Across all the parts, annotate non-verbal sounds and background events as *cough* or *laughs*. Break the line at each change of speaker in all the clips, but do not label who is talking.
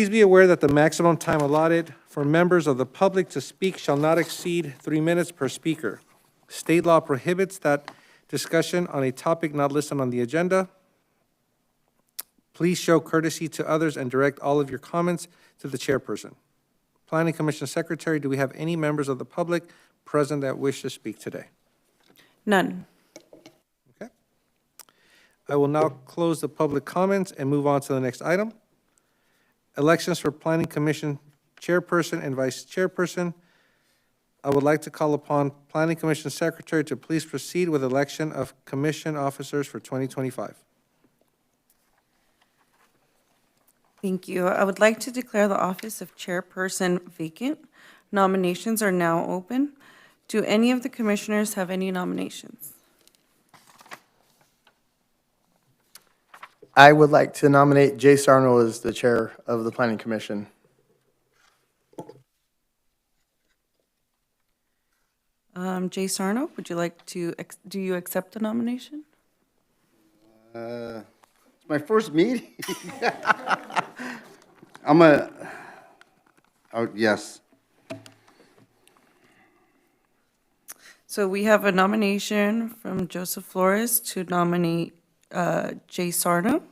Please be aware that the maximum time allotted for members of the public to speak shall not exceed three minutes per speaker. State law prohibits that discussion on a topic not listed on the agenda. Please show courtesy to others and direct all of your comments to the chairperson. Planning Commission Secretary, do we have any members of the public present that wish to speak today?
None.
Okay. I will now close the public comments and move on to the next item. Elections for Planning Commission Chairperson and Vice Chairperson. I would like to call upon Planning Commission Secretary to please proceed with election of commission officers for 2025.
Thank you. I would like to declare the office of chairperson vacant. Nominations are now open. Do any of the commissioners have any nominations?
I would like to nominate Jay Sarno as the chair of the planning commission.
Um, Jay Sarno, would you like to, ex- do you accept the nomination?
It's my first meeting. *laughs* I'm a, oh, yes.
So we have a nomination from Joseph Flores to nominate uh, Jay Sarno.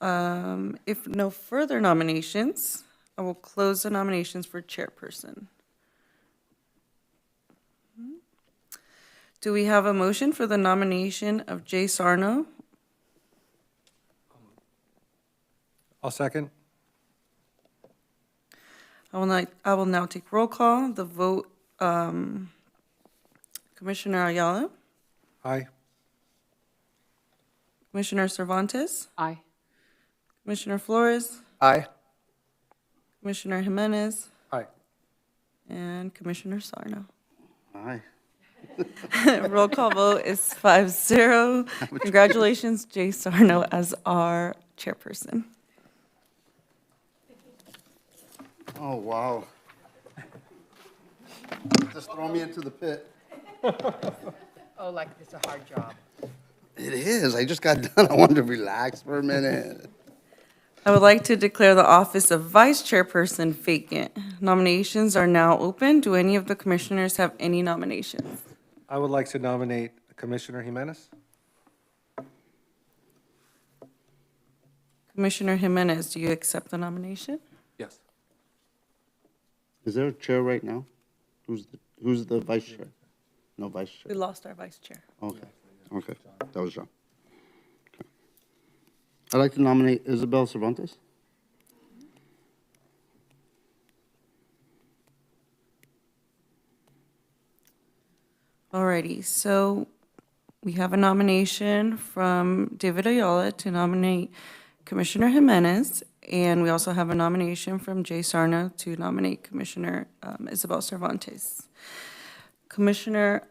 Um, If no further nominations, I will close the nominations for chairperson. Do we have a motion for the nomination of Jay Sarno?
I'll second.
I will not, I will now take roll call, the vote, um, Commissioner Ayala,
Aye.
Commissioner Cervantes,
Aye.
Commissioner Flores,
Aye.
Commissioner Jimenez,
Aye.
And Commissioner Sarno. *laughs*
Aye.
Roll call vote is five zero. Congratulations, Jay Sarno, as our chairperson.
Oh, wow. Just throw me into the pit.
Oh, like it's a hard job.
It is. I just got *laughs* done. I wanted to relax for a minute.
I would like to declare the office of vice chairperson vacant. Nominations are now open. Do any of the commissioners have any nominations?
I would like to nominate Commissioner Jimenez.
Commissioner Jimenez, do you accept the nomination?
Yes.
Is there a chair right now? Who's, the- who's the vice chair? No vice
We
chair.
lost our vice chair.
Okay, okay. That was John. Okay. I'd like to nominate Isabel Cervantes.
Alrighty, so we have a nomination from David Ayala to nominate Commissioner Jimenez, and we also have a nomination from Jay Sarna to nominate Commissioner um, Isabel Cervantes. Commissioner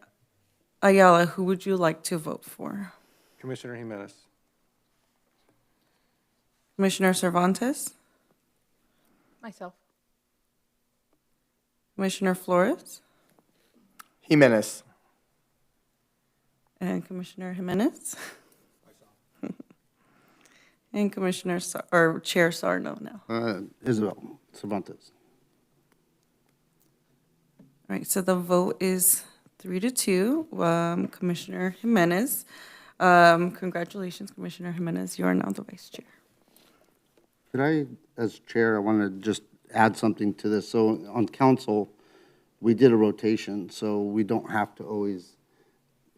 Ayala, who would you like to vote for?
Commissioner Jimenez.
Commissioner Cervantes?
Myself.
Commissioner Flores?
Jimenez.
And Commissioner Jimenez? *laughs* And Commissioner, Sar- or Chair Sarno now.
Uh, Isabel Cervantes.
All right, so the vote is three to two. Um, Commissioner Jimenez, um, congratulations, Commissioner Jimenez, you are now the vice chair.
Could I, as chair, I want to just add something to this. So on council, we did a rotation, so we don't have to always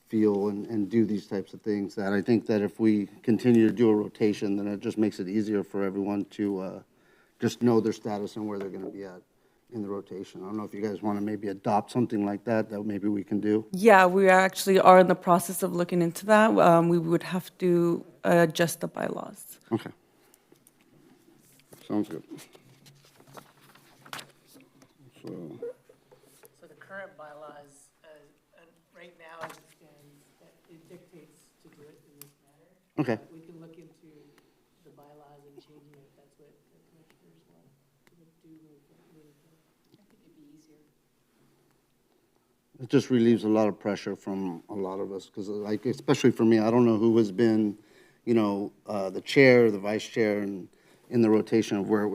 feel and, and do these types of things. That I think that if we continue to do a rotation, then it just makes it easier for everyone to, uh, just know their status and where they're going to be at in the rotation. I don't know if you guys want to maybe adopt something like that, that maybe we can do.
Yeah, we actually are in the process of looking into that. Um, we would have to adjust the bylaws.
Okay. Sounds good. So.
So the current bylaws, uh, uh, right now, as it stands, that it dictates to do it in this manner.
Okay.
We can look into the bylaws and changing it if that's what the commissioners want to do moving forward. I think it'd be easier.
It just relieves a lot of pressure from a lot of us, because like, especially for me, I don't know who has been, you know, uh, the chair, the vice chair, and in the rotation of where it was